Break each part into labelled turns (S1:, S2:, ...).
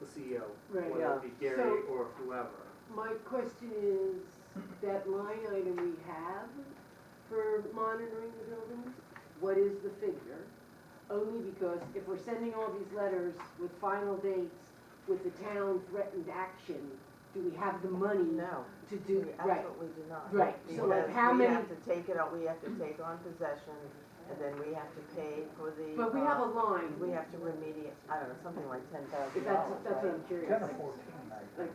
S1: the CEO,
S2: Right.
S1: whether it be
S2: Yeah.
S1: Gary
S2: So-
S1: or whoever.
S2: My question is, that line item we have for monitoring the buildings, what is the figure? Only because if we're sending all these letters with final dates, with the town threatened action, do we have the money
S3: No,
S2: to
S3: we
S2: do, right?
S3: absolutely do not.
S2: Right, so like
S3: Because
S2: how
S3: We
S2: many,
S3: have to take it, out- we have to take on possession, and then we have to pay for the.
S2: but we have a
S3: uh,
S2: line,
S3: We have to remediate, I don't know, something like ten thousand
S2: that's,
S3: dollars,
S2: that's what I'm curious.
S4: Ten or fourteen, I think.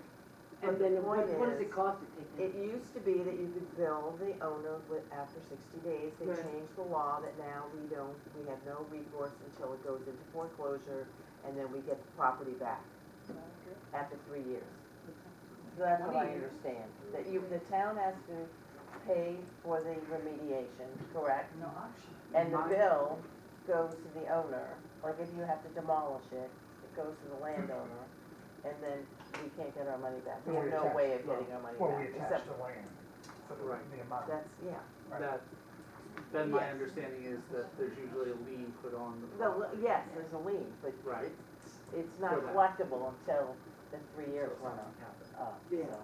S2: And then what, what does
S3: Point is-
S2: it cost to take
S3: It
S2: that?
S3: used to be that you could bill the owner with, after sixty days, they
S2: Right.
S3: changed the law that now we don't, we have no recourse until it goes into foreclosure, and then we get the property back after three years. That's what I understand, that you, the town has to pay for the remediation, correct?
S5: No option.
S3: And the bill goes to the owner, like if you have to demolish it, it goes to the landowner, and then we can't get our money back. We have no way of getting our money
S4: Well, we
S3: back,
S4: attach
S3: except,
S4: the land for
S1: Right.
S4: the, the amount.
S3: that's, yeah.
S4: Right.
S1: That, then my
S3: Yes.
S1: understanding is that there's usually a lien put on the
S3: No, well, yes, there's a lien, but
S1: Right.
S3: it's, it's not
S1: For that.
S3: collectible until the three years
S1: Something
S3: run up,
S1: happened.
S3: up,
S2: Yeah.
S3: so.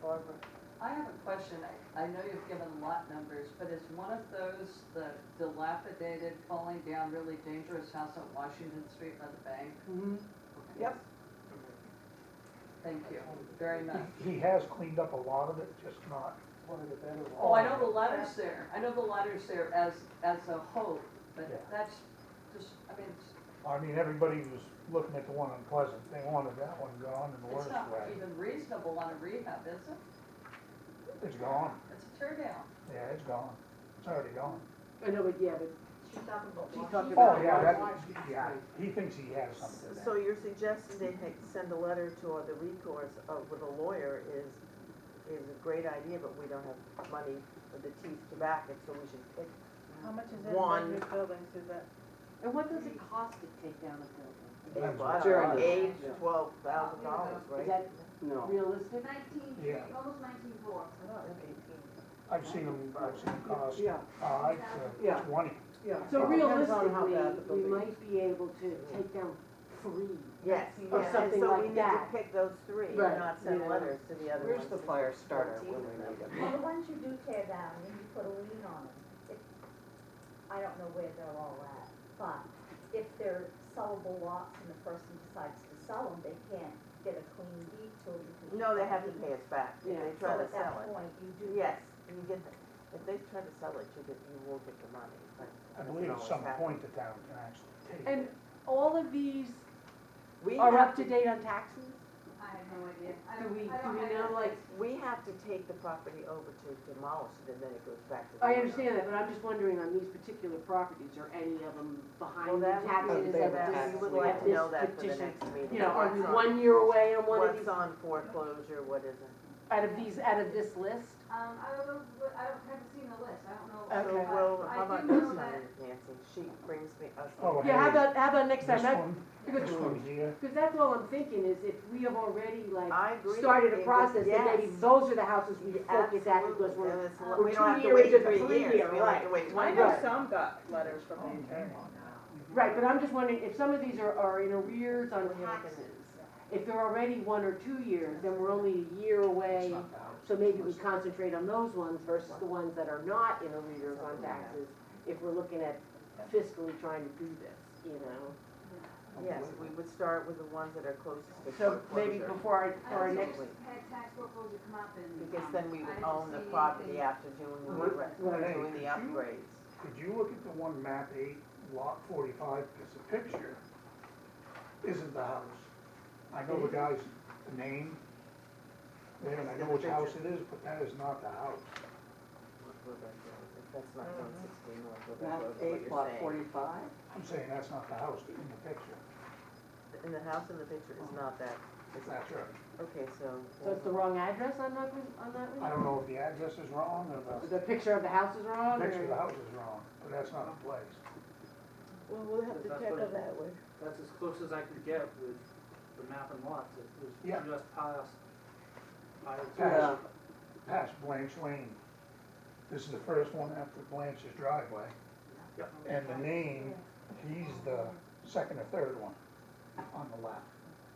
S3: Barbara?
S5: I have a question. I- I know you've given lot numbers, but is one of those the dilapidated, falling down, really dangerous house on Washington Street by the bank?
S2: Mhm.
S3: Yep.
S5: Thank you very much.
S4: He has cleaned up a lot of it, just not. One of the better ones.
S5: Oh, I know the ladder's there. I know the ladder's there as, as a hope, but
S4: Yeah.
S5: that's just, I mean, it's,
S4: I mean, everybody was looking at the one on Pleasant, they wanted that one gone and the
S5: it's
S4: worst
S5: not
S4: way.
S5: even reasonable on a rehab, is it?
S4: It's gone,
S5: It's a tear down.
S4: yeah, it's gone, it's already gone.
S2: I know, but yeah, but
S6: She's talking about.
S2: She's talking
S6: Washington.
S2: about
S4: Oh, yeah, that, yeah,
S2: Right.
S4: he thinks he has something.
S3: So you're suggesting they take, send a letter to uh, the recourse of, with a lawyer is, is a great idea, but we don't have money for the teeth to back it, so we should pick
S7: How much is it,
S3: one.
S7: Those buildings, is that?
S2: And what does it cost to take down a building?
S3: Eight,
S4: That's
S3: well, I
S4: what-
S3: don't know,
S2: Sure.
S3: eight, twelve thousand dollars,
S2: Is
S3: right?
S2: that realistic?
S6: Nineteen,
S4: Yeah.
S6: almost nineteen four.
S3: I thought it was eighteen.
S4: I've seen them, I've seen them cost
S7: Yeah,
S4: five
S7: Yeah.
S4: to twenty.
S7: yeah.
S4: Oh.
S2: So
S7: Depends on how
S2: realistically,
S7: bad the
S2: we
S7: building is.
S2: might be able to take down three.
S3: Yes,
S2: Or
S3: yeah, and
S2: something
S3: so
S2: like
S3: we need to
S2: that.
S3: pick those three, and
S2: Right,
S3: not send
S2: yeah.
S3: letters to the other ones.
S7: Where's the fire starter when we need it?
S6: Well, the ones you do tear down, and you put a lien on them, if, I don't know where they're all at, but if they're sellable lots and the person decides to sell them, they can't get a clean deed to it. because
S3: No, they
S6: you
S3: have to pay
S6: can't
S3: us back, if
S2: Yeah.
S3: they
S6: deed.
S3: try to
S6: So at
S3: sell
S6: that
S3: it.
S6: point, you do.
S3: Yes, you get, the- if they try to sell it, you get, you will get the money, but.
S4: I
S3: it
S4: believe
S3: doesn't
S4: at some
S3: always
S4: point the town can actually take it.
S2: And all of these
S3: happen. We
S2: are
S3: have
S2: up to date on taxes?
S6: I have no idea. I
S2: Do
S6: don't-
S2: we, do
S6: I don't
S2: we
S6: have
S2: know, like,
S3: We have to take the property over to demolish it, and then it goes back to the
S2: I
S3: owner.
S2: understand that, but I'm just wondering on these particular properties, are any of them
S3: Well,
S2: behind the
S3: that would be,
S2: taxes
S7: They're
S2: at
S3: that,
S7: taxed.
S3: we
S2: this,
S3: would like
S2: at
S3: to know
S2: this
S3: that for the
S2: petition?
S3: next meeting.
S2: You know, are we
S3: What's on-
S2: one year away on one of
S3: What's
S2: these,
S3: on foreclosure, what isn't?
S2: out of these, out of this list?
S6: Um, I don't know, what- I don't, haven't seen the list, I don't know.
S3: So,
S6: but
S3: well,
S6: I
S3: how
S6: do
S3: about
S6: know
S3: this
S6: that-
S3: time, Nancy, she brings me, us.
S4: Oh,
S2: Yeah, how
S4: hey,
S2: about, how about next
S4: This
S2: time? I-
S4: one,
S2: Because,
S4: this one here,
S2: because that's all I'm thinking is if we have already like
S3: I agree.
S2: started
S3: with
S2: a
S3: you,
S2: process, then maybe
S3: yes.
S2: those are the houses we
S3: Yeah,
S2: focus at because
S3: absolutely,
S2: we're
S3: and it's-
S6: we're
S3: We
S2: two
S3: don't have to
S2: years
S3: wait
S2: into
S3: three
S2: three
S3: years,
S2: year,
S3: we only have to
S2: right.
S3: wait
S7: I
S3: twenty
S7: know
S3: years.
S7: some got letters from
S4: oh,
S7: the attorney.
S4: hang on now.
S2: Right, but I'm just wondering, if some of these are, are in arrears on
S3: We're not
S2: taxes, if they're already one or two years, then we're only a year away. So maybe we concentrate on those ones versus the ones that are not in arrears on taxes, if we're looking at fiscally trying to do this, you know?
S3: Yes, we would start with the ones that are closest
S2: So
S3: to foreclosure.
S2: maybe before our, for our
S6: I
S2: next,
S6: just had tax foreclosure come up and.
S3: Because
S6: um,
S3: then we
S6: I
S3: would
S6: didn't
S3: own the
S6: see
S3: property
S6: anything.
S3: after doing the,
S4: Right.
S3: re-
S4: Right.
S3: doing the upgrades.
S4: Could you look at the one map eight, lot forty-five, because the picture isn't the house. I know the guy's name, there, and I know which house it is, but that is not the house.
S3: That's not
S2: Mm-hmm.
S3: one sixty North Quebec
S7: Map
S3: Road, what
S7: eight,
S3: you're
S7: lot
S3: saying.
S7: forty-five?
S4: I'm saying that's not the house in the picture.
S3: And the house in the picture is not that, it's,
S4: That's right.
S3: okay, so.
S2: so it's the wrong address on that one, on that
S4: I
S2: one?
S4: don't know if the address is wrong or the
S2: The picture of the house is wrong or?
S4: picture of the house is wrong, but that's not the place.
S3: Well, we'll
S1: have to That's check what- on
S3: that one.
S1: That's as close as I could get with the map and lots, it
S4: Yeah.
S1: was just past. past-
S4: Past, past Blanche Lane. This is the first one after Blanche's driveway.
S1: Yep.
S4: And the name, he's the second or third one on the left.